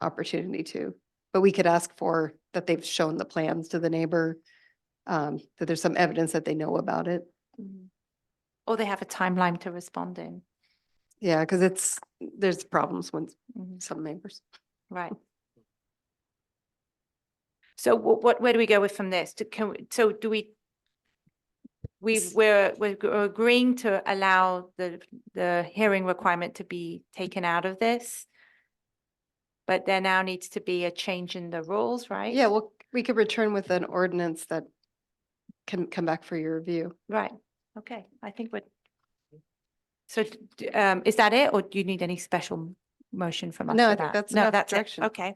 opportunity to. But we could ask for that they've shown the plans to the neighbor, um, that there's some evidence that they know about it. Mm-hmm. Mhm. Or they have a timeline to respond in. Yeah, because it's, there's problems with Mhm. some neighbors. Right. So what, what, where do we go with from this? Do- Can, we- so do we? We, S- we're, we're g- agreeing to allow the, the hearing requirement to be taken out of this. But there now needs to be a change in the rules, right? Yeah, well, we could return with an ordinance that can come back for your review. Right, okay, I think we're. So d- d- um, is that it, or do you need any special m- motion from us? No, for I think that? that's No, enough that's it. direction. Okay.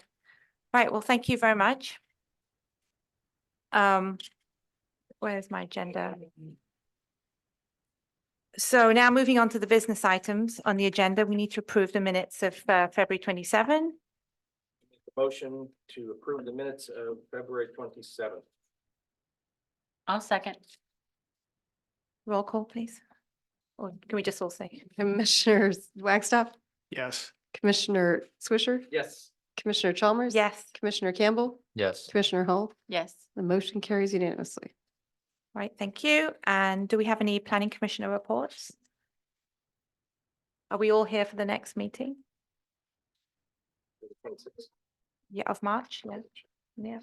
Right, well, thank you very much. Um, where's my agenda? So now moving on to the business items on the agenda, we need to approve the minutes of uh, February twenty-seven. Motion to approve the minutes of February twenty-seventh. I'll second. Roll call, please. Or can we just all say? Commissioners Wagstaff, Yes. Commissioner Swisher, Yes. Commissioner Chalmers. Yes. Commissioner Campbell, Yes. Commissioner Hull, Yes. the motion carries unanimously. Right, thank you. And do we have any planning commissioner reports? Are we all here for the next meeting? Yeah, of March, yeah, yeah,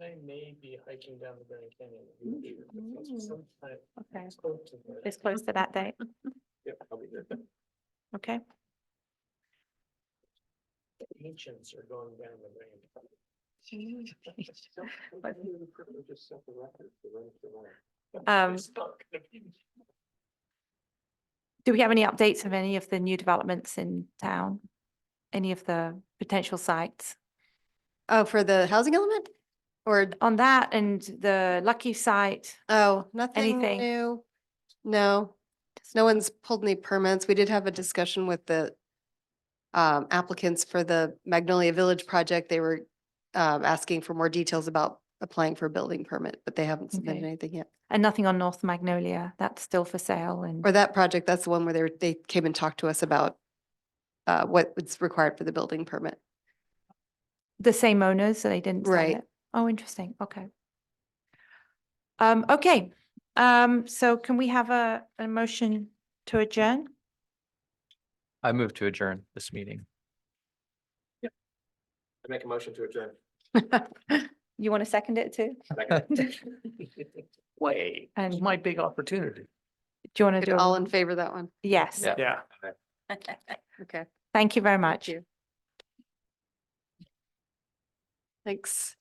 I may be hiking down the Grand Canyon. in the future, but okay. Mm-hmm. It's Yep, close to that date, I'll be there. okay? Ancients are going down the Grand. Mm-hmm. Um, Do we have any updates of any of the new developments in town? Any of the potential sites Oh, for the housing element? Or, on that and the lucky site? oh, nothing Anything. new? No, no one's pulled any permits. We did have a discussion with the um, applicants for the Magnolia Village project. They were um, asking for more details about applying for a building permit, but they haven't submitted Okay. anything yet. And nothing on North Magnolia, that's still for sale and, Or that project, that's the one where they, were- they came and talked to us about uh, what was required for the building permit. the same owners, so they didn't sell Right. it. Oh, interesting. Okay. Um, okay, um, so can we have a, a motion to adjourn? I move to adjourn this meeting. I make a motion to adjourn. You want to second it too? Wait, And do my big opportunity. you want to do? a- All in favor of that one? Yes, Yeah. Yeah. Okay, thank you very thank much. you. Thanks.